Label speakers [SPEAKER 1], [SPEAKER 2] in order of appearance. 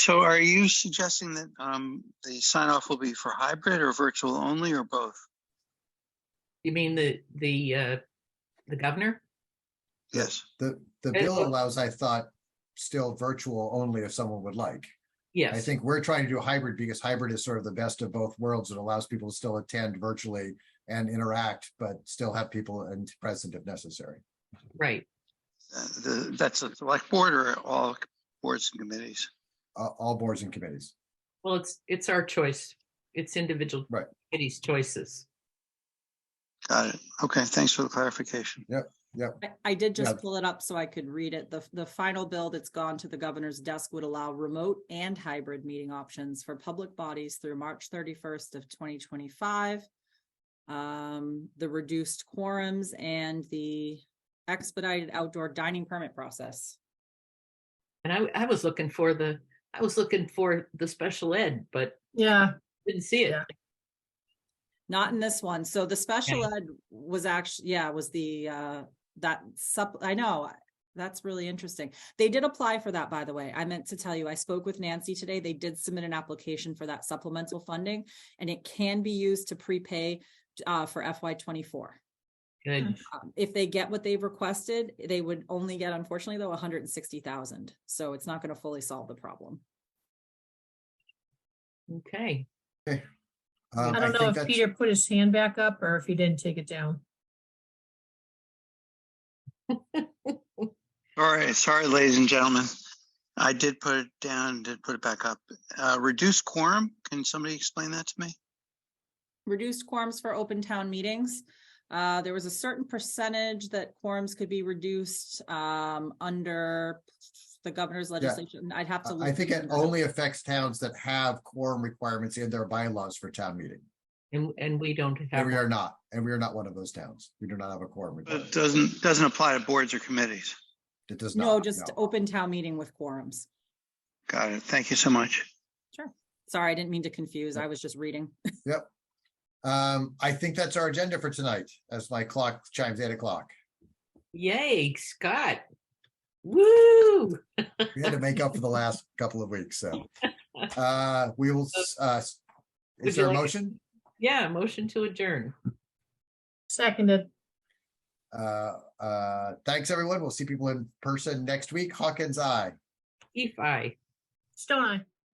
[SPEAKER 1] So are you suggesting that um, the sign off will be for hybrid or virtual only or both?
[SPEAKER 2] You mean the, the, uh, the governor?
[SPEAKER 1] Yes.
[SPEAKER 3] The, the
[SPEAKER 2] It
[SPEAKER 3] bill
[SPEAKER 2] looks-
[SPEAKER 3] allows, I thought, still virtual only if someone would like. I
[SPEAKER 2] Yes,
[SPEAKER 3] think we're trying to do hybrid because hybrid is sort of the best of both worlds. It allows people to still attend virtually and interact, but still have people and present if necessary.
[SPEAKER 2] right.
[SPEAKER 1] Uh, the- That's a select board or all boards and committees?
[SPEAKER 3] Uh, all boards and committees.
[SPEAKER 2] Well, it's, it's our choice. It's individual
[SPEAKER 3] Right.
[SPEAKER 2] committees' choices.
[SPEAKER 1] Got it. Okay, thanks for the clarification.
[SPEAKER 4] I- I did
[SPEAKER 3] Yeah.
[SPEAKER 4] just pull it up so I could read it. The, the final bill that's gone to the governor's desk would allow remote and hybrid meeting options for public bodies through March thirty-first of twenty twenty-five. Um, the reduced quorums and the expedited outdoor dining permit process.
[SPEAKER 2] And I, I was looking for the, I was looking for the special ed, but
[SPEAKER 5] Yeah,
[SPEAKER 2] didn't see it.
[SPEAKER 5] Yeah.
[SPEAKER 4] Not in this one. So the special ed was actually, yeah, was the, uh, that sup, I know, that's really interesting. They did apply for that, by the way. I meant to tell you, I spoke with Nancy today. They did submit an application for that supplemental funding and it can be used to prepay, uh, for FY twenty-four.
[SPEAKER 2] Good.
[SPEAKER 4] Um, If they get what they've requested, they would only get unfortunately though, hundred and sixty thousand. So it's not going to fully solve the problem.
[SPEAKER 2] Okay.
[SPEAKER 3] Um,
[SPEAKER 5] I don't know
[SPEAKER 3] think
[SPEAKER 5] if
[SPEAKER 3] that's-
[SPEAKER 5] Peter put his hand back up or if he didn't take it down.
[SPEAKER 1] All right, sorry, ladies and gentlemen. I did put it down, did put it back up. Uh, Reduced quorum, can somebody explain that to me?
[SPEAKER 4] reduced quorums for open town meetings. Uh, there was a certain percentage that quorums could be reduced, um, under the governor's legislation. I'd have
[SPEAKER 3] I
[SPEAKER 4] to.
[SPEAKER 3] I
[SPEAKER 4] look
[SPEAKER 3] think it
[SPEAKER 4] into that.
[SPEAKER 3] only affects towns that have quorum requirements in their bylaws for town meeting.
[SPEAKER 2] And, and we don't
[SPEAKER 3] And
[SPEAKER 2] have,
[SPEAKER 3] we
[SPEAKER 2] one.
[SPEAKER 3] are not, and we are not one of those towns. We do not have a quorum.
[SPEAKER 1] But uh, it
[SPEAKER 3] requirement.
[SPEAKER 1] doesn't, doesn't apply to boards or committees.
[SPEAKER 3] It does not.
[SPEAKER 4] No, just
[SPEAKER 3] no.
[SPEAKER 4] open town meeting with quorums.
[SPEAKER 1] Got it. Thank you so much.
[SPEAKER 4] Sorry, I didn't mean to confuse. I was just reading.
[SPEAKER 3] Um, I think that's our agenda for tonight, as my clock chimes eight o'clock.
[SPEAKER 2] yay, Scott. Woo.
[SPEAKER 3] We had to make up for the last couple of weeks, so. Uh, we will, s- uh, s-
[SPEAKER 2] Would
[SPEAKER 3] is
[SPEAKER 2] you
[SPEAKER 3] there a
[SPEAKER 2] like-
[SPEAKER 3] motion?
[SPEAKER 2] Yeah, motion to adjourn.
[SPEAKER 5] Seconded.
[SPEAKER 3] Uh, uh, thanks,
[SPEAKER 2] E
[SPEAKER 3] everyone. We'll see people in person next week. Hawkins, aye.
[SPEAKER 2] If I.
[SPEAKER 5] Stone Eye.